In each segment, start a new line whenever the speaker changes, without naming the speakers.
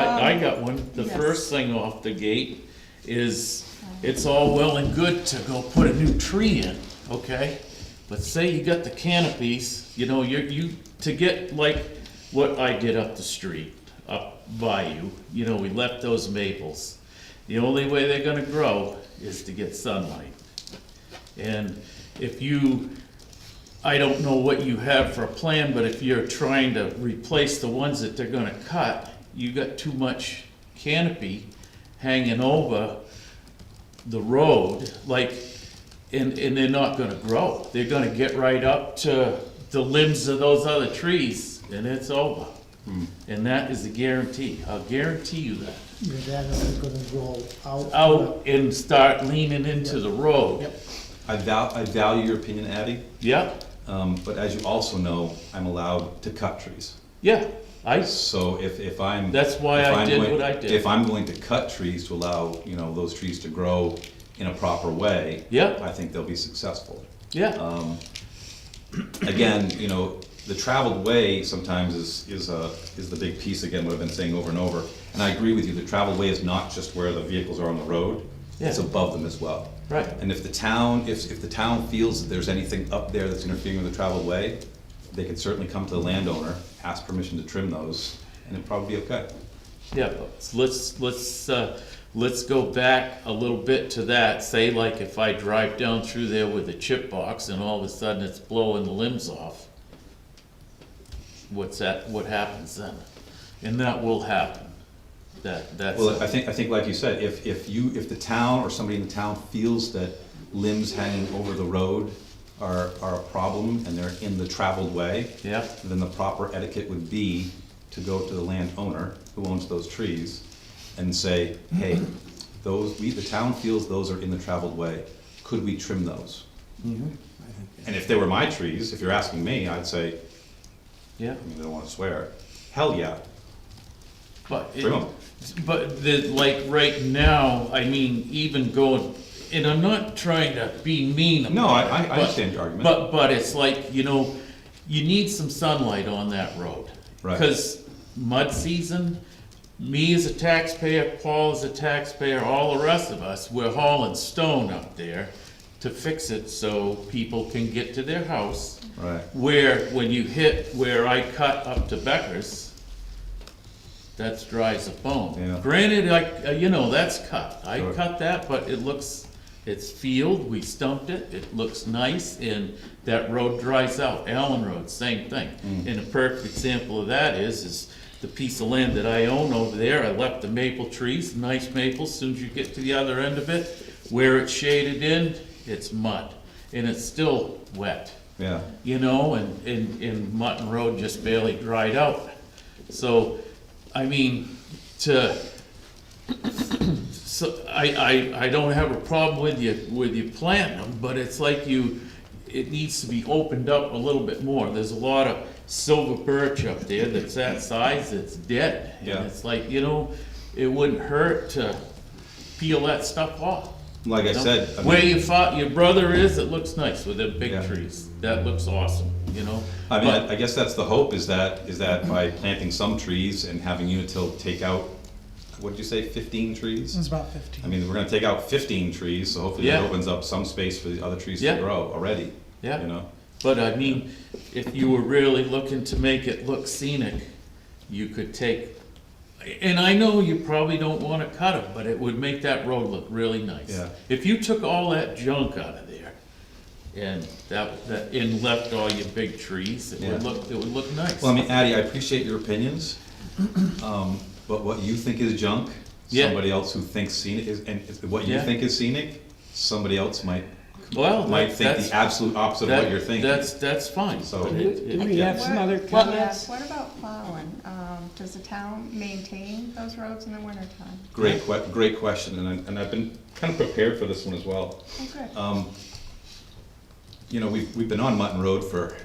I got one, the
Yes.
first thing off the gate is, it's all well and good to go put a new tree in, okay? But say you got the canopies, you know, you're, you, to get like what I did up the street, up by you, you know, we left those maples. The only way they're gonna grow is to get sunlight. And if you, I don't know what you have for a plan, but if you're trying to replace the ones that they're gonna cut, you got too much canopy hanging over the road, like, and, and they're not gonna grow. They're gonna get right up to the limbs of those other trees, and it's over. And that is a guarantee. I'll guarantee you that
Your dad is gonna go out.
out and start leaning into the road.
Yep.
I val, I value your opinion, Abby,
Yep,
um, but as you also know, I'm allowed to cut trees.
yeah, I,
So if, if I'm.
That's why
if
I
I'm
did
going-
what I did.
If I'm going to cut trees to allow, you know, those trees to grow in a proper way.
Yeah.
I think they'll be successful.
yeah,
Again, you know, the traveled way sometimes is, is, uh, is the big piece, again, what I've been saying over and over. And I agree with you, the traveled way is not just where the vehicles are on the road, it's
Yeah.
above them as well.
Right.
And if the town, if, if the town feels that there's anything up there that's interfering with the traveled way, they could certainly come to the landowner, ask permission to trim those, and it'd probably be okay.
yeah, but let's, let's, uh, let's go back a little bit to that, say like if I drive down through there with a chip box and all of a sudden it's blowing the limbs off. What's that, what happens then? And that will happen, that, that's,
Well, I think, I think like you said, if, if you, if the town or somebody in the town feels that limbs hanging over the road are, are a problem and they're in the traveled way,
yeah,
then the proper etiquette would be to go to the landowner who owns those trees and say, hey, those, we, the town feels those are in the traveled way, could we trim those? And if they were my trees, if you're asking me, I'd say,
yeah.
I mean, I don't wanna swear, hell yeah,
But, it-
Bring 'em.
but the, like, right now, I mean, even going, and I'm not trying to be mean about it.
No, I- I- I
but-
understand your argument.
But, but it's like, you know, you need some sunlight on that road.
Right.
Cause mud season, me as a taxpayer, Paul as a taxpayer, all the rest of us, we're hauling stone up there to fix it so people can get to their house.
right?
Where, when you hit where I cut up to Becker's, that's dry as a
Yeah.
bone. Granted, I, uh, you know, that's cut, I
Sure.
cut that, but it looks, it's field, we stumped it, it looks nice, and that road dries out. Allen Road, same thing.
Mm.
And a perfect example of that is, is the piece of land that I own over there, I left the maple trees, nice maples, soon as you get to the other end of it, where it's shaded in, it's mud, and it's still wet
Yeah,
you know, and, and, and Mutton Road just barely dried out. So, I mean, to, so, I, I, I don't have a problem with you, with you planting them, but it's like you, it needs to be opened up a little bit more. There's a lot of silver birch up there that's that size, it's dead.
Yeah.
And it's like, you know, it wouldn't hurt to peel that stuff off.
like I
No.
said. I
Where
mean-
your fa, your brother is, it looks nice with them big
Yeah.
trees. That looks awesome, you know?
I mean,
But-
I I guess that's the hope, is that, is that by planting some trees and having Unitil take out, what did you say, fifteen
It's
trees?
about
I
fifteen.
mean, we're gonna take out fifteen trees, so hopefully that
Yeah.
opens up some space for the other trees to
Yeah.
grow already.
Yeah.
You know,
But I mean, if you were really looking to make it look scenic, you could take, and I know you probably don't wanna cut them, but it would make that road look really nice.
Yeah.
If you took all that junk out of there and that, that, and left all your big trees, it would
Yeah.
look, it would look nice.
well, I mean, Addie, I appreciate your opinions, um, but what you think is junk,
Yeah.
somebody else who thinks scenic is, and if- what you
Yeah.
think is scenic, somebody else might,
Well,
might
that-
think
that's-
the absolute opposite of what
that-
you're thinking.
That's, that's fine.
So-
but it-
Do
it-
we have some other
What- yeah,
comments?
What about plowing? Um, does the town maintain those roads in the wintertime?
Great que, great question, and I, and I've been kind of prepared for this one as well.
Oh, good.
Um, You know, we've, we've been on Mutton Road for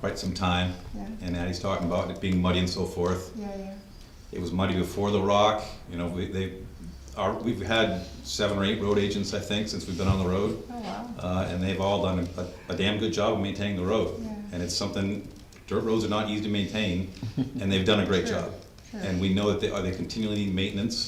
quite some time,
Yeah.
and Addie's talking about it being muddy and so forth.
Yeah, yeah.
It was muddy before the rock, you know, we, they, our, we've had seven or eight road agents, I think, since we've been on the road.
Oh, wow.
Uh, and they've all done a, a damn good job of maintaining the road.
Yeah.
And it's something, dirt roads are not easy to maintain, and they've done a great
Sure.
job. And we know that they, are they continually needing maintenance?